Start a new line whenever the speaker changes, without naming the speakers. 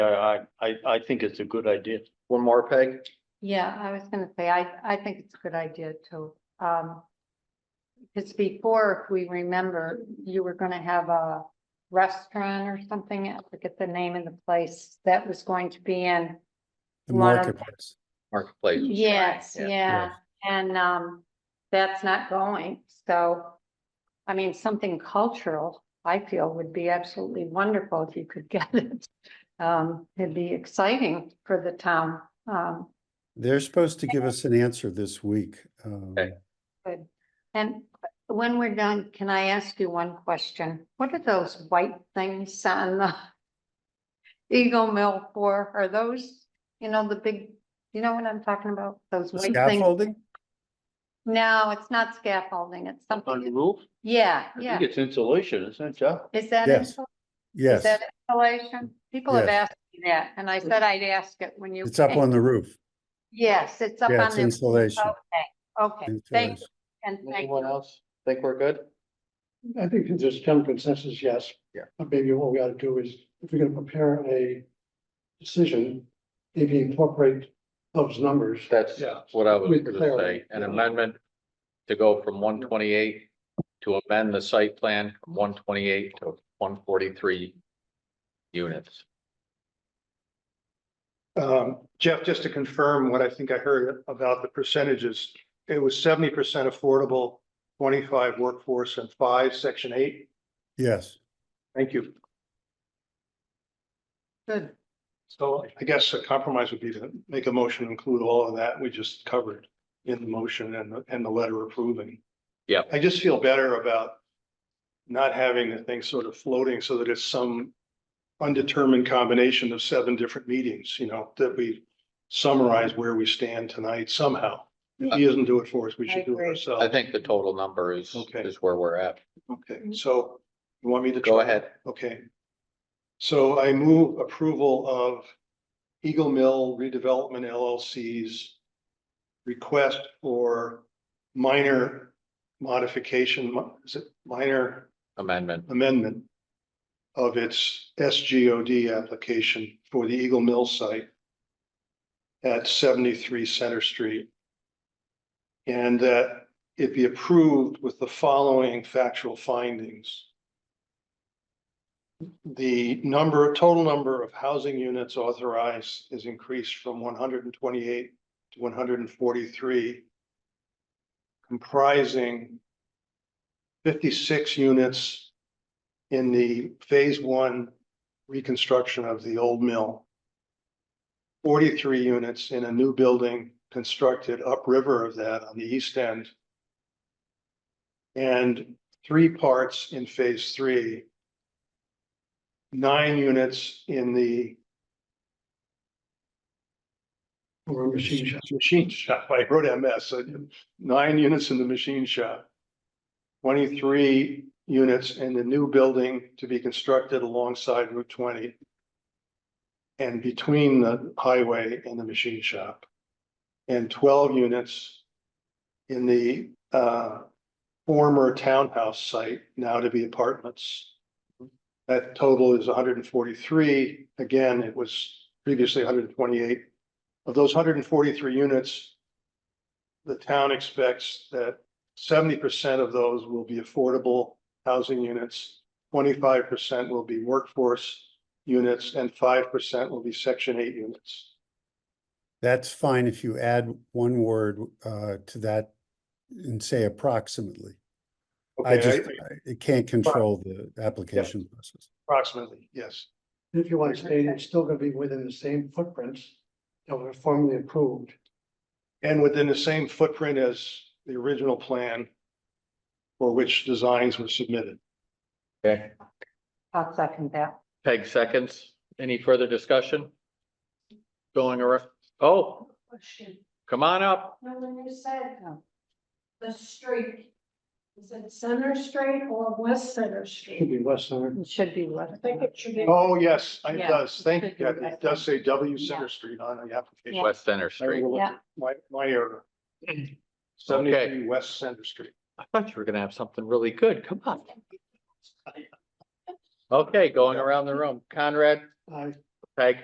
I, I, I think it's a good idea.
One more peg?
Yeah, I was gonna say, I, I think it's a good idea too. Um. Cause before, if we remember, you were gonna have a restaurant or something, I forget the name of the place that was going to be in.
The
One of-
marketplace.
Marketplace.
Yes,
Yeah.
yeah, and, um, that's not going, so. I mean, something cultural, I feel would be absolutely wonderful if you could get it. Um, it'd be exciting for the town, um.
They're supposed to give us an answer this week. um,
Okay.
Good. And when we're done, can I ask you one question? What are those white things on the Eagle Mill for? Are those, you know, the big, you know what I'm talking about? Those white things?
Scaffolding?
No, it's not scaffolding. It's
On the
something,
roof?
yeah,
I
yeah.
think it's insulation, isn't it, Jeff?
Is that,
Yes.
insula- is
Yes,
that installation? People have
Yes.
asked me that and I said I'd ask it when you.
it's up
came.
on the roof.
Yes, it's up on.
Yeah, it's
the-
insulation.
Okay, okay, thank you.
Insulation.
And thank
Anyone
you.
else think we're good?
I think that there's general consensus, yes.
Yeah.
But maybe what we ought to do is, if we're gonna prepare a decision, maybe incorporate those numbers.
That's
Yeah.
what I was
With
gonna say,
clarity.
an amendment to go from one twenty-eight to amend the site plan from one twenty-eight to one forty-three units.
Um, Jeff, just to confirm what I think I heard about the percentages, it was seventy percent affordable, twenty-five workforce and five, section eight.
Yes,
Thank you.
Good.
So I guess a compromise would be to make a motion, to include all of that we just covered in the motion and, the and the letter approving.
Yep.
I just feel better about not having the thing sort of floating so that it's some undetermined combination of seven different meetings, you know, that we summarize where we stand tonight somehow. If he doesn't do it for us, we
I
should do it
agree.
ourselves.
I think the total number is,
Okay.
is where we're at.
Okay, so you want me to?
Go
try?
ahead.
Okay. So I move approval of Eagle Mill Redevelopment LLC's request for minor modification, mi- is it minor
Amendment,
amendment of its SGOD application for the Eagle Mill site at seventy-three Center Street. And that it be approved with the following factual findings. The number, total number of housing units authorized is increased from one hundred and twenty-eight to one hundred and forty-three, comprising fifty-six units in the phase one reconstruction of the old mill. Forty-three units in a new building constructed upriver of that on the east end. And three parts in phase three. Nine units in the
Or a machine shop.
machine shop, I wrote MS, so nine units in the machine shop. Twenty-three units in the new building to be constructed alongside Route twenty. And between the highway and the machine shop. And twelve units in the uh former townhouse site, now to be apartments. That total is hundred and forty-three, again, it was previously hundred and twenty-eight of those hundred and forty-three units, the town expects that seventy percent of those will be affordable housing units, twenty-five percent will be workforce units, and five percent will be section eight units.
that's fine if you add one word uh, to that and say approximately. I
Okay,
just,
I-
I- it can't control the application process.
approximately, yes.
If you want to state, it's still gonna be within the same footprints that were formally approved.
And within the same footprint as the original plan for which designs were submitted.
okay?
I'll second that.
Peg seconds. Any further discussion? Going around, oh,
Question,
come on up.
now when you said um,
Oh.
the street, is it Center Street or West Center
Should
Street?
be West Center.
It should be left.
I think it should be.
Oh, yes, it
Yeah.
does. Thank you, Kathy. It does say W Center Street on the application.
West Center Street.
Yeah.
My, my error. Seventy-three West Center Street.
I thought you were gonna have something really good. Come on. Okay, going around the room. Conrad,
I
Peg.